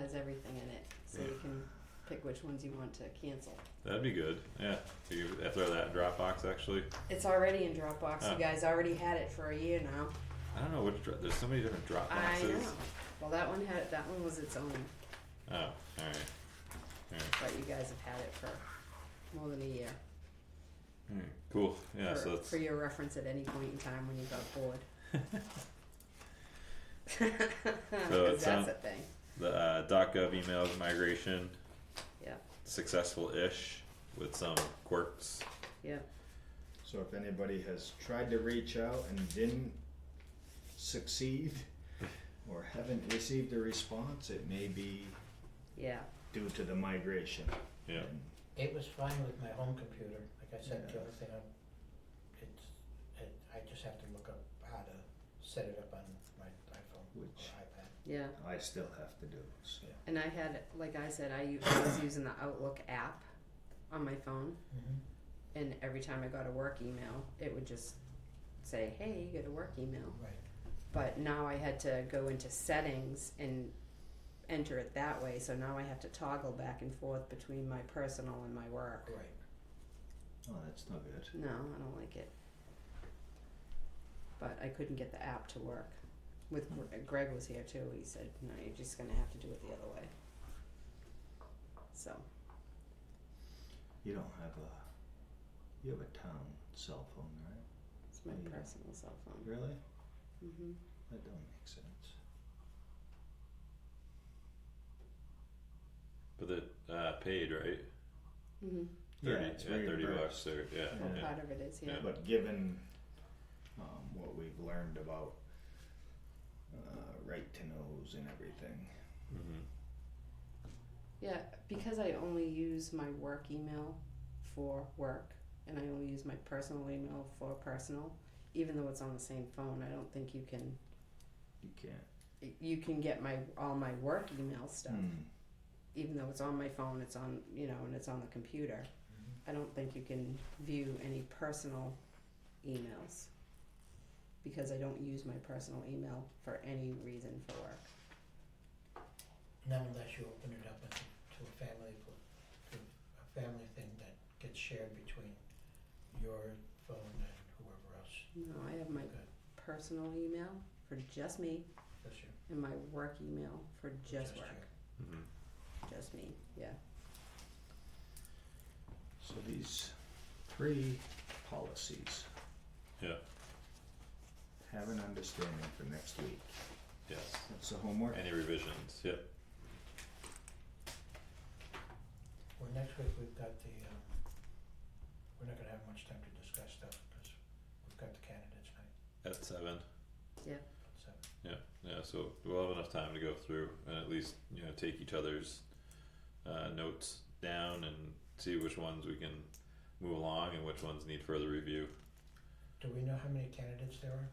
has everything in it, so you can pick which ones you want to cancel. That'd be good. Yeah. Do you have to have that Dropbox actually? It's already in Dropbox, Huh. you guys already had it for a year now. I don't know which. Dro- There's so many different I know, Dropboxes. well, that one had, that one was its own, Oh, all right. All right. but you guys have had it for more than a year. All right. Cool. Yeah. for, so that's for your reference at any point in time when you got bored. Because sound- that's a thing. the uh, .gov email migration Yeah, successful-ish with some quirks. yeah. So if anybody has tried to reach out and didn't succeed or haven't received a response, it may be Yeah. due to the migration. Yeah. It was fine with my home computer, like I said, the Yeah. only thing I'm, it's, it, I just have to look up how to set it up on my iPhone or Which- iPad. Yeah. I still have to do, so. And I had, like I said, I, u- I was using the Outlook app on my phone, Mm-hmm. and every time I got a work email, it would just say, "Hey, you got a work email." Right, But now I had to go into settings and enter it that way. So now I have to toggle back and forth between my personal and my work. right. Oh, that's not good. No, I don't like it. But I couldn't get the app to work. With Gre- Greg was here too. He said, "No, you're just gonna have to do it the other way." So You don't have a, you have a town cell phone, right? it's my Yeah. personal cell phone. Really? hmm That don't make sense. But the uh, paid right. hmm Thirty. Yeah, it's yeah, Thirty bucks. reimbursed. There. Yeah. Well, Yeah. part of it is yeah. Yeah. But given um, what we've learned about uh, right to knows and everything, Mm-hmm. Yeah, because I only use my work email for work, and I only use my personal email for personal. Even though it's on the same phone, I don't think you can. you can't. You can get my all my work email stuff. Hmm. even though it's on my phone, it's on, you know, and it's on the computer, I don't think you can view any personal emails because I don't use my personal email for any reason for work. Now unless you open it up into, to a family, pl- to a family thing that gets shared between your phone and whoever else. No, I have my Good. personal email for just me That's your, and my work email for just just work. your- Mm-hmm. Just me, yeah. So these three policies. Yeah. Have an understanding for next week. Yes. That's the homework. Any revisions? Yep. Well, next week we've got the, um, we're not gonna have much time to discuss stuff, cause we've got the candidates night, At seven. so. Yeah, yeah, so we'll have enough time to go through and at least, you know, take each other's uh notes down and see which ones we can move along and which ones need further review. Do we know how many candidates there are?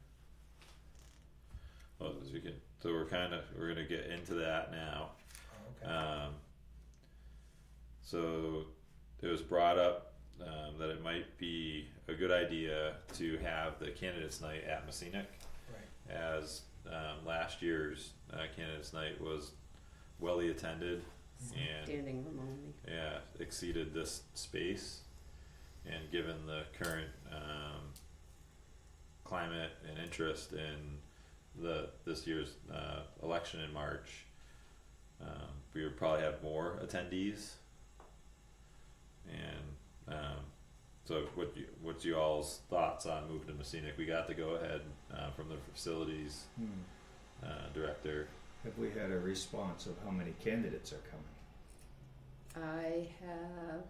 Well, as we can, so we're kinda, we're gonna get into that now. Oh, okay. Um, so it was brought up um, that it might be a good idea to have the candidates night at Messinic. Right, as um, last year's uh, candidates night was welly attended and Standing room only. yeah exceeded this space and given the current um, climate and interest in the this year's uh, election in March um, we would probably have more attendees and um, so what you, what's you all's thoughts on moving to Messina we got the go ahead uh, from the facilities Hmm. uh, director. Have we had a response of how many candidates are coming? I have,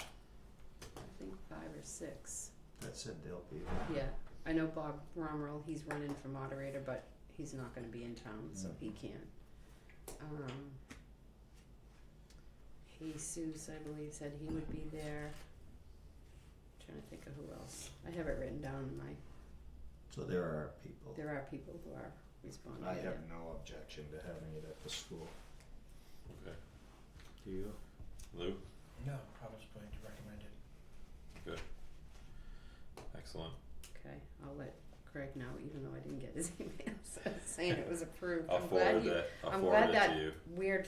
I think five or six. That said, they'll be. Yeah, I know Bob Romerl, he's running for moderator, but he's not gonna be in town, so No. he can't. Um. Jesus, I believe, said he would be there. Trying to think of who else. I have it written down in my, So there are people. there are people who are responding. I have yeah. no objection to having it at the school. Okay. Do you? Lou, no, I was going to recommend it. excellent. Okay, I'll let Craig know, even though I didn't get his email, so saying it was approved. I'll I'm glad forward you- that. I'll I'm forward glad it that to you. Weird